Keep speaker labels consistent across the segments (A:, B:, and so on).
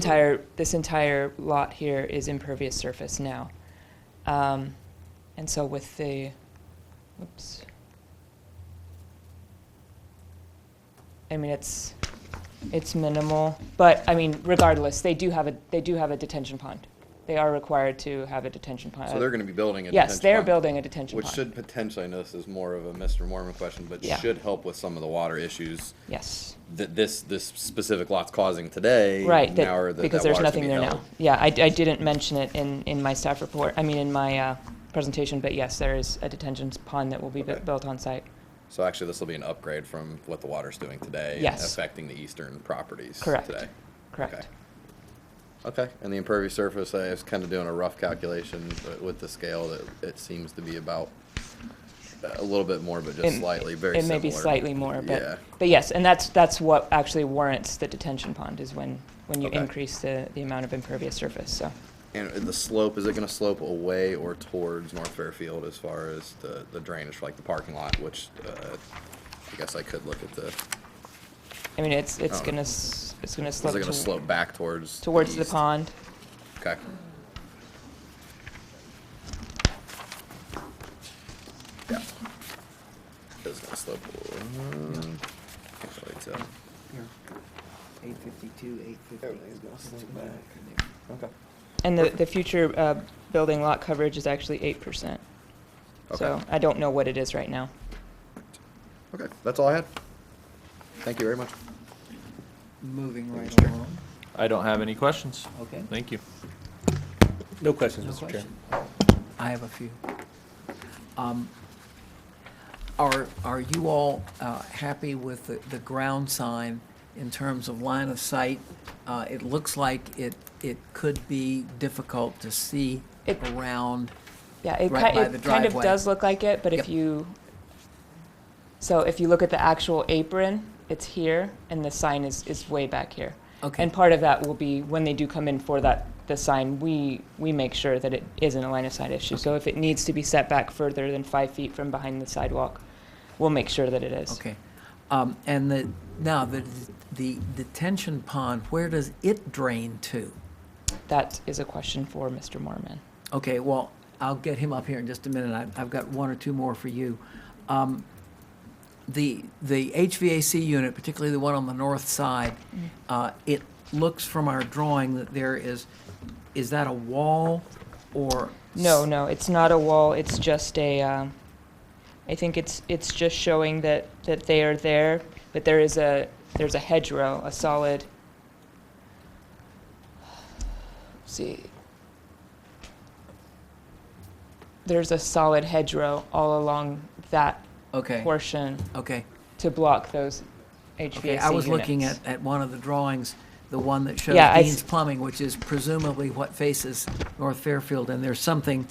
A: entire, this entire lot here is impervious surface now. Um, And so with the, whoops. I mean, it's, it's minimal, but, I mean, regardless, they do have a, they do have a detention pond. They are required to have a detention pond.
B: So they're gonna be building a detention pond.
A: Uh, Yes, they're building a detention
B: Which
A: pond.
B: should potentially, I know this is more of a Mr. Mormon question, but
A: Yeah.
B: should help with some of the water issues
A: Yes.
B: that this, this specific lot's causing today.
A: Right,
B: now or
A: that,
B: that-
A: because
B: that
A: there's
B: water's gonna
A: nothing
B: be
A: there now.
B: held.
A: Yeah, I, I didn't mention it in, in my staff report, I mean, in my, uh, presentation, but yes, there is a detention pond that will be bu-
B: Okay.
A: built on site.
B: So actually, this will be an upgrade from what the water's doing today. and
A: Yes.
B: Affecting the eastern properties
A: Correct.
B: today.
A: Correct.
B: Okay, and the impervious surface, I was kind of doing a rough calculation, but with the scale, it, it seems to be about uh, a little bit more, but just
A: It-
B: slightly, very
A: It
B: similar.
A: may be slightly more,
B: Yeah.
A: but, but yes, and that's, that's what actually warrants the detention pond, is when, when you
B: Okay.
A: increase the, the amount of impervious surface, so.
B: And the slope, is it gonna slope away or towards North Fairfield as far as the, the drainage for like the parking lot, which, uh, I guess I could look at the, is
A: I mean, it's, it's
B: Oh.
A: gonna, s- it's gonna
B: it
A: slope
B: gonna
A: to-
B: slope back towards?
A: towards the
B: east?
A: pond.
B: Okay. Yeah. It's gonna slope. um, can't really tell.
C: Eight fifty-two, eight fifty.
B: Everything's gonna slip back. Okay.
A: And the, the future, uh, building lot coverage is actually eight percent. So
B: Okay.
A: I don't know what it is right now.
B: Okay, that's all I had. Thank you very much.
C: Moving right
B: Mr.
C: along,
D: I don't have any questions.
C: okay?
D: Thank you.
E: No questions,
C: No
E: Mr. Chair.
C: question. I have a few. Um, Are, are you all uh, happy with the, the ground sign in terms of line of sight? Uh, It looks like it, it could be difficult to see
A: It-
C: around.
A: Yeah, it,
C: right
A: ki-
C: by the
A: it kind of
C: driveway.
A: does look like it, but if
C: Yep.
A: you, so if you look at the actual apron, it's here, and the sign is, is way back here.
C: Okay.
A: And part of that will be when they do come in for that, the sign, we, we make sure that it isn't a line of sight issue. So if it needs to be set back further than five feet from behind the sidewalk, we'll make sure that it is.
C: Okay. Um, And the, now, the, the detention pond, where does it drain to?
A: That is a question for Mr. Mormon.
C: Okay, well, I'll get him up here in just a minute. I've, I've got one or two more for you. Um, the, the HVAC unit, particularly the one on the north side,
A: Mm.
C: uh, it looks from our drawing that there is, is that a wall or?
A: No, no, it's not a wall, it's just a, um, I think it's, it's just showing that, that they are there, but there is a, there's a hedgerow, a solid, see, there's a solid hedgerow all along that
C: Okay,
A: portion
C: okay.
A: to block those HVAC
C: Okay, I was looking
A: units.
C: at, at one of the drawings, the one that shows
A: Yeah, I
C: Dean's
A: s-
C: Plumbing, which is presumably what faces North Fairfield, and there's something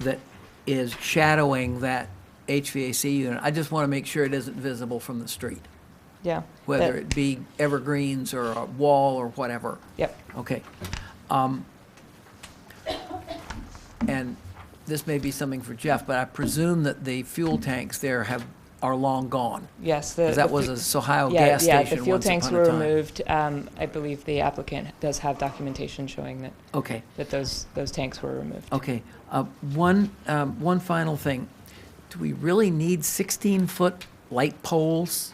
C: that is shadowing that HVAC unit. I just want to make sure it isn't visible from the street,
A: Yeah.
C: whether
A: that-
C: it be evergreens or a wall or whatever.
A: Yep,
C: Okay. Um, And this may be something for Jeff, but I presume that the fuel tanks there have, are long gone.
A: yes. the-
C: 'Cause
A: the
C: that
A: fu-
C: was a Ohio
A: Yeah,
C: Oh, gas
A: yeah,
C: station
A: the fuel
C: once
A: tanks
C: upon
A: were
C: a time.
A: removed. Um, I believe the applicant does have documentation showing that,
C: Okay,
A: that those, those tanks were removed.
C: okay. Uh, One, um, one final thing. Do we really need 16-foot light poles?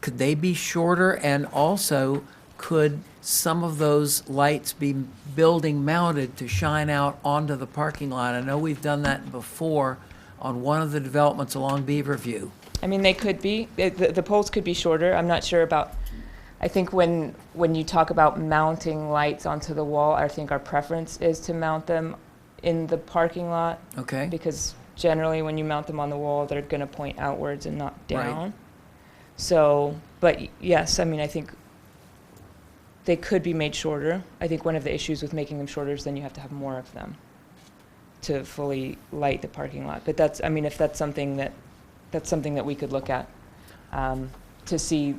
C: Could they be shorter? And also, could some of those lights be building mounted to shine out onto the parking lot? I know we've done that before on one of the developments along Beaverview.
A: I mean, they could be, the, the the poles could be shorter. I'm not sure about, I think when, when you talk about mounting lights onto the wall, I think our preference is to mount them in the parking lot
C: Okay?
A: because generally when you mount them on the wall, they're going to point outwards and not
C: Right.
A: down. So, but y- yes, I mean, I think they could be made shorter. I think one of the issues with making them shorter is then you have to have more of them to fully light the parking lot. But that's, I mean, if that's something that, that's something that we could look at um, to see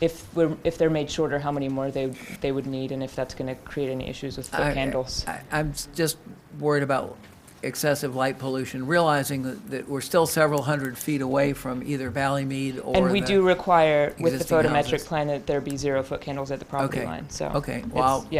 A: if we're, if they're made shorter, how many more they, they would need and if that's going to create any issues with foot
C: I-
A: candles.
C: I, I'm s- just worried about excessive light pollution, realizing that, that we're still several hundred feet away from either Valleymead or.
A: And we
C: the-
A: do require with the
C: existing
A: photometric
C: houses.
A: plan that there be zero foot candles at the property
C: Okay.
A: line, so.
C: Okay,
A: it's-
C: well, I'll-
A: yeah,